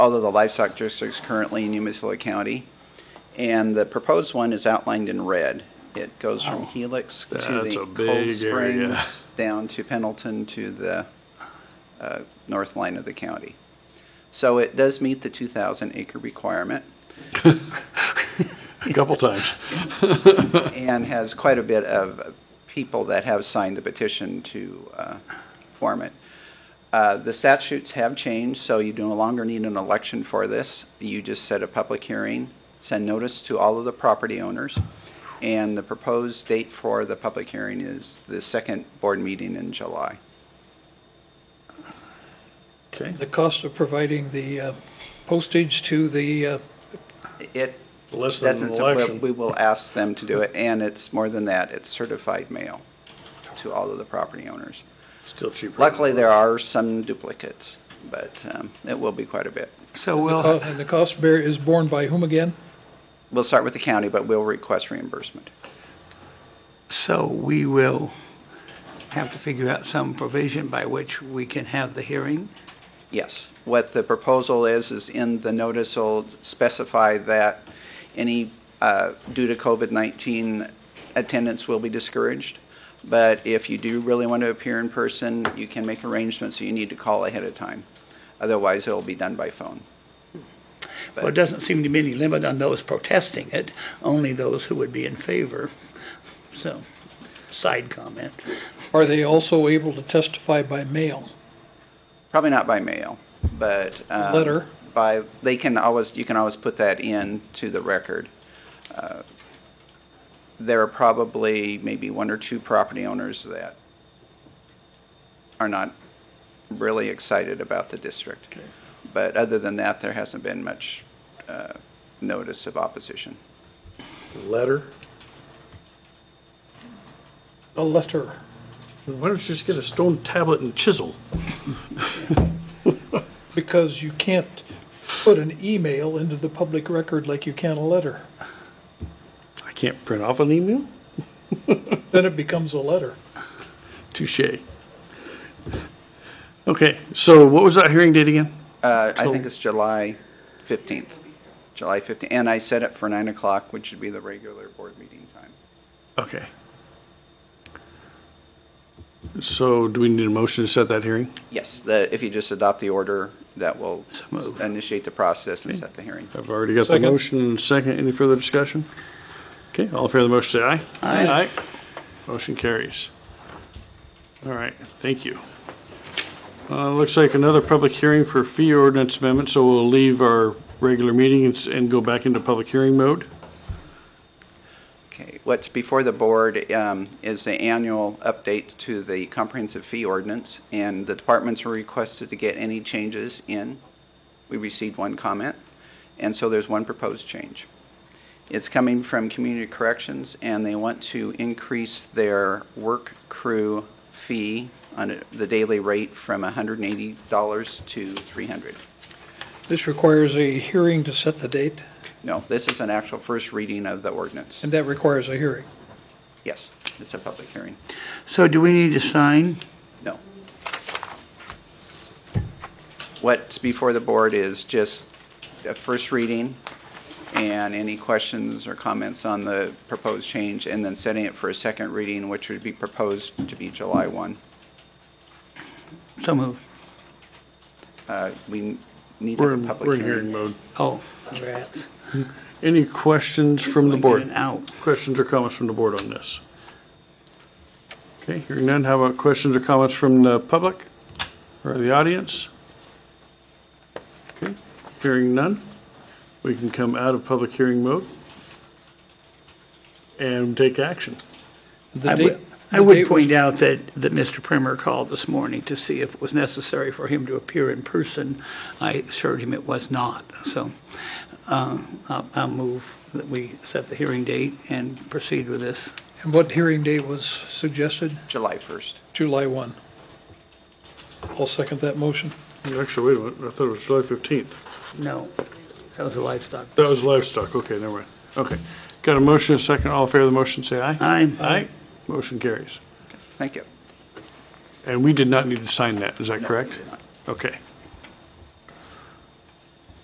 although the livestock district is currently in Umatilla County. And the proposed one is outlined in red. It goes from Helix to That's the a Cold big area. Springs, down to Pendleton to the uh, north line of the county. So it does meet the 2,000 acre requirement A couple times. and has quite a bit of people that have signed the petition to uh, form it. Uh, The statutes have changed, so you no longer need an election for this. You just set a public hearing, send notice to all of the property owners, and the proposed date for the public hearing is the second board meeting in July. Okay. The cost of providing the uh, postage to the, uh, It Less than doesn't, an so election. we will ask them to do it, and it's more than that, it's certified mail to all of the property owners. Still cheaper. Luckily, there are some duplicates, but um, it will be quite a bit. So uh, we'll, and the cost bear is borne by whom again? We'll start with the county, but we'll request reimbursement. so we will have to figure out some provision by which we can have the hearing. Yes. What the proposal is, is in the notice will specify that any, uh, due to COVID-19, attendance will be discouraged. But if you do really want to appear in person, you can make arrangements, you need to call ahead of time. Otherwise, it'll be done by phone. Well, it doesn't seem to be any limit on those protesting it, only those who would be in favor. So, side comment. Are they also able to testify by mail? Probably not by mail, but. um, Letter? By, they can always, you can always put that in to the record. Uh, There are probably maybe one or two property owners that are not really excited about the district. Okay. But other than that, there hasn't been much uh, notice of opposition. Letter. A letter. Why don't you just get a stone tablet and chisel? Because you can't put an email into the public record like you can a letter. I can't print off an email? Then it becomes a letter. Touche. Okay, so what was that hearing date again? Uh, I So- think it's July 15th, July 15th. And I set it for 9 o'clock, which would be the regular board meeting time. Okay. So do we need a motion to set that hearing? Yes, the, if you just adopt the order, that will moved. initiate the process and Okay. set the hearing. I've already got the Second. motion and second. Any further discussion? Okay, all in favor of the motion, say aye. Aye. Motion carries. All right, thank you. Uh, Looks like another public hearing for fee ordinance amendment, so we'll leave our regular meeting and s- and go back into public hearing mode. Okay, what's before the board um, is the annual update to the comprehensive fee ordinance, and the departments were requested to get any changes in. We received one comment, and so there's one proposed change. It's coming from Community Corrections, and they want to increase their work crew fee on a- the daily rate from $180 to $300. This requires a hearing to set the date, No, this is an actual first reading of the ordinance. and that requires a hearing. Yes, it's a public hearing. So do we need to sign? What's before the board is just a first reading and any questions or comments on the proposed change, and then setting it for a second reading, which would be proposed to be July 1. So moved. Uh, We need to We're have a in, public we're in hearing. hearing mode. Oh, congrats. Any questions from the We're board? getting Out. Questions or comments from the board on this? Okay, hearing none. How about questions or comments from the public or the audience? Okay, hearing none. We can come out of public hearing mode and take action. The I date, would, I the would date was- point out that, that Mr. Primer called this morning to see if it was necessary for him to appear in person. I assured him it was not, so uh, I'll I'll move that we set the hearing date and proceed with this. and what hearing date was suggested? July 1st. July 1. I'll second that motion. Actually, wait a minute, I thought it was July 15th. No, that was a livestock. That was livestock, okay, never mind. Okay, got a motion, a second, all in favor of the motion, say aye. Aye. Aye, motion carries. Thank you. And we did not need to sign that, is that No, correct? we did not. Okay.